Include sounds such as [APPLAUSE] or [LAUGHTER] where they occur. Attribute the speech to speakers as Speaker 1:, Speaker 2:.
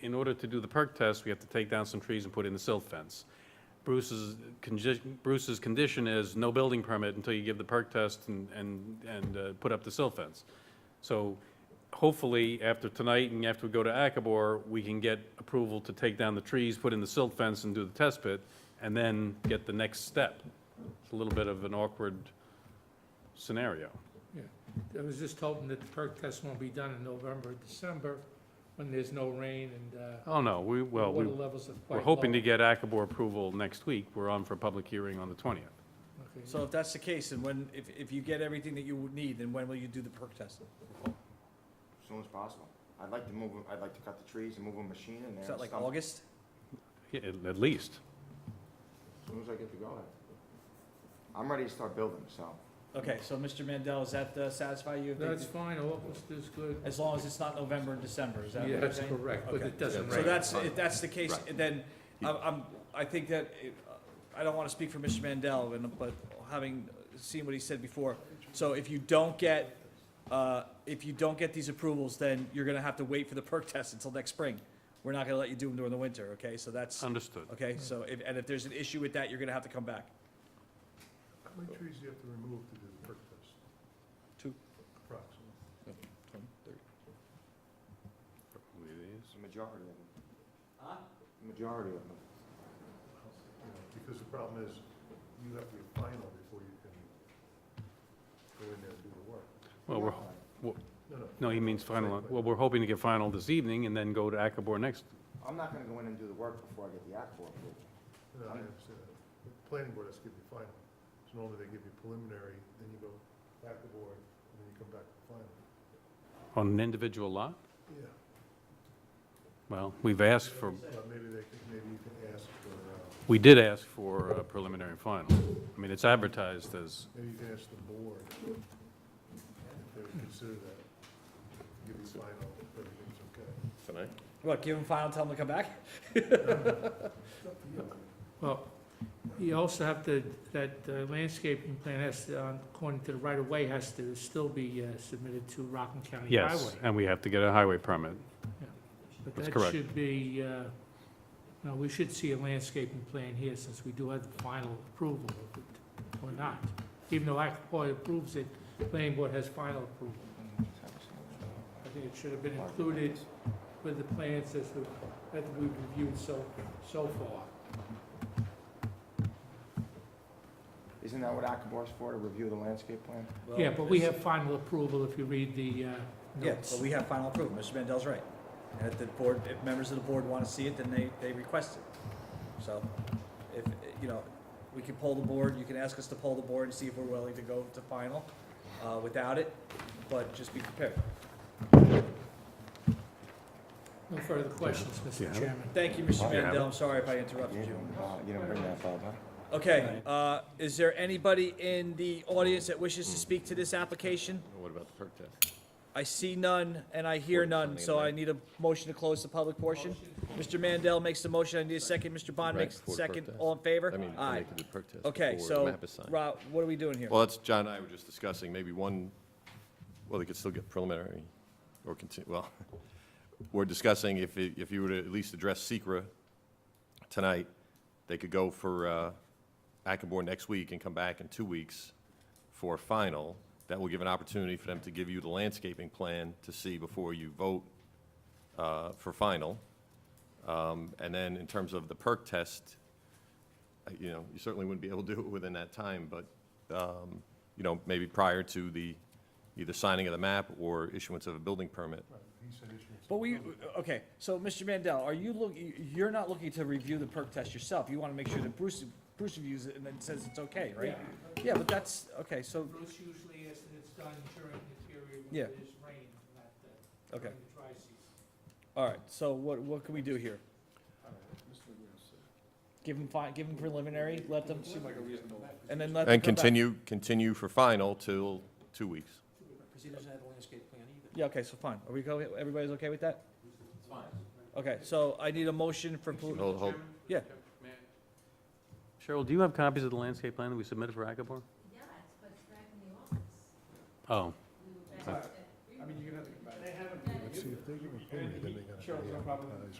Speaker 1: in order to do the perk test, we have to take down some trees and put in the silt fence. Bruce's, congi- Bruce's condition is no building permit until you give the perk test and, and, and uh, put up the silt fence. So hopefully, after tonight and after we go to Akabor, we can get approval to take down the trees, put in the silt fence and do the test pit, and then get the next step. It's a little bit of an awkward scenario.
Speaker 2: I was just hoping that the perk test won't be done in November, December, when there's no rain and, uh,
Speaker 1: Oh, no, we, well, we,
Speaker 2: water levels are quite low.
Speaker 1: we're hoping to get Akabor approval next week. We're on for public hearing on the twentieth.
Speaker 2: Okay.
Speaker 3: So if that's the case, and when, if, if you get everything that you would need, then when will you do the perk test?
Speaker 4: as soon as possible. I'd like to move, 'em- I'd like to cut the trees and move a machine in there.
Speaker 3: Is that
Speaker 4: and
Speaker 3: like
Speaker 4: stump-
Speaker 3: August?
Speaker 1: At, at least.
Speaker 4: As soon as I get to go ahead. I'm ready to start building, so.
Speaker 3: Okay, so Mr. Mandel, does that uh, satisfy you? if they-
Speaker 2: That's fine, August is good.
Speaker 3: As long as it's not November and December, is that what
Speaker 2: Yeah,
Speaker 3: you're
Speaker 2: that's
Speaker 3: saying?
Speaker 2: correct, but
Speaker 3: Okay.
Speaker 2: it doesn't
Speaker 3: So
Speaker 2: rain.
Speaker 3: that's, if that's the case, then I'm, I'm, I think that, it- I don't want to speak for Mr. Mandel, and, but having seen what he said before, so if you don't get, uh, if you don't get these approvals, then you're going to have to wait for the perk test until next spring. We're not going to let you do them during the winter, okay? So that's,
Speaker 1: Understood.
Speaker 3: okay, so if, and if there's an issue with that, you're going to have to come back.
Speaker 5: How many trees do you have to remove to do the perk test?
Speaker 3: Two.
Speaker 5: Approximately.
Speaker 4: It's the majority of them. The Majority of them.
Speaker 5: You know, Because the problem is, you have to be final before you can go in there and do the work.
Speaker 1: Well, we're,
Speaker 5: No, no.
Speaker 1: no, he means final, well, we're hoping to get final this evening and then go to Akabor next.
Speaker 4: I'm not gonna go in and do the work before I get the act for approval.
Speaker 5: No, I understand that. The planning board has to give you final. So normally they give you preliminary, then you go back to board, and then you come back to final.
Speaker 1: On an individual lot?
Speaker 5: Yeah.
Speaker 1: Well, we've asked for,
Speaker 5: But maybe they could, maybe you can ask for, uh,
Speaker 1: we did ask for a preliminary and final. I mean, it's advertised as,
Speaker 5: maybe you can ask the board if they would consider that. Give you final, if everything's okay.
Speaker 3: What, give them final, tell them to come back?
Speaker 2: Well, you also have to, that uh, landscaping plan has, to, uh, according to the right-of-way, has to still be uh, submitted to Rockland County Highway.
Speaker 1: yes, and we have to get a highway permit. that's
Speaker 2: But that
Speaker 1: correct.
Speaker 2: should be, uh, no, we should see a landscaping plan here since we do have the final approval of it, or not. Even though Aquaport approves it, planning board has final approval. I think it should have been included with the plans as we, that we've reviewed so, so far.
Speaker 4: Isn't that what Akabor's for, to review the landscape plan?
Speaker 2: Yeah, but we have final approval if you read the uh,
Speaker 3: Yeah,
Speaker 2: notes.
Speaker 3: but we have final approval, Mr. Mandel's right. And if the board, if members of the board want to see it, then they, they request it. So, if, you know, we can poll the board, you can ask us to poll the board and see if we're willing to go to final, uh, without it, but just be prepared.
Speaker 2: No further questions,
Speaker 1: Yeah.
Speaker 2: Mr. Chairman.
Speaker 3: Thank you, Mr.
Speaker 4: Oh,
Speaker 1: yeah.
Speaker 3: Mandel, I'm sorry if I interrupted
Speaker 4: You
Speaker 3: you.
Speaker 4: didn't, uh, you didn't bring that up, huh?
Speaker 3: Okay, uh, is there anybody in the audience that wishes to speak to this application?
Speaker 6: What about the perk test?
Speaker 3: I see none and I hear none, so I need a motion to close the public portion. Mr. Mandel makes the motion, I need a second, Mr. Bond
Speaker 6: Right,
Speaker 3: makes the
Speaker 6: for the
Speaker 3: second,
Speaker 6: protest.
Speaker 3: all in favor?
Speaker 6: I mean, I
Speaker 3: Aye.
Speaker 6: need to do the perk test
Speaker 3: Okay,
Speaker 6: before the
Speaker 3: so,
Speaker 6: map is signed.
Speaker 3: Rob, what are we doing here?
Speaker 6: Well, that's, John and I were just discussing, maybe one, well, they could still get preliminary or continue, well, [LAUGHS] we're discussing if, it- if you were to at least address Secra tonight, they could go for uh, Akabor next week and come back in two weeks for a final. That will give an opportunity for them to give you the landscaping plan to see before you vote uh, for final. Um, And then in terms of the perk test, uh, you know, you certainly wouldn't be able to do it within that time, but um, you know, maybe prior to the, either signing of the map or issuance of a building permit.
Speaker 5: He said issuance.
Speaker 3: But we, okay, so Mr. Mandel, are you look, you're not looking to review the perk test yourself, you wanna make sure that Bruce, Bruce reviews it and then says it's okay, right? Yeah, but that's, okay, so,
Speaker 2: Bruce usually is that it's done during the period
Speaker 3: Yeah.
Speaker 2: when there's rain, not the,
Speaker 3: Okay.
Speaker 2: during the dry season.
Speaker 3: all right, so what, what can we do here? Give them fi, give them preliminary, let them. Seem like a reasonable. And then let them
Speaker 6: And
Speaker 3: come back.
Speaker 6: continue, continue for final till two weeks.
Speaker 7: Because he doesn't have a landscape plan either.
Speaker 3: Yeah, okay, so fine, are we go, everybody's okay with that? It's fine. Okay, so I need a motion for, poli-
Speaker 6: Hold, hold.
Speaker 3: yeah,
Speaker 1: Cheryl, do you have copies of the landscape plan that we submitted for Akabor?
Speaker 8: Yeah, it's put back in the office.
Speaker 1: Oh,
Speaker 8: We were
Speaker 1: Okay.
Speaker 8: back at the-
Speaker 5: Let's see, if they give a permit, then they gotta advertise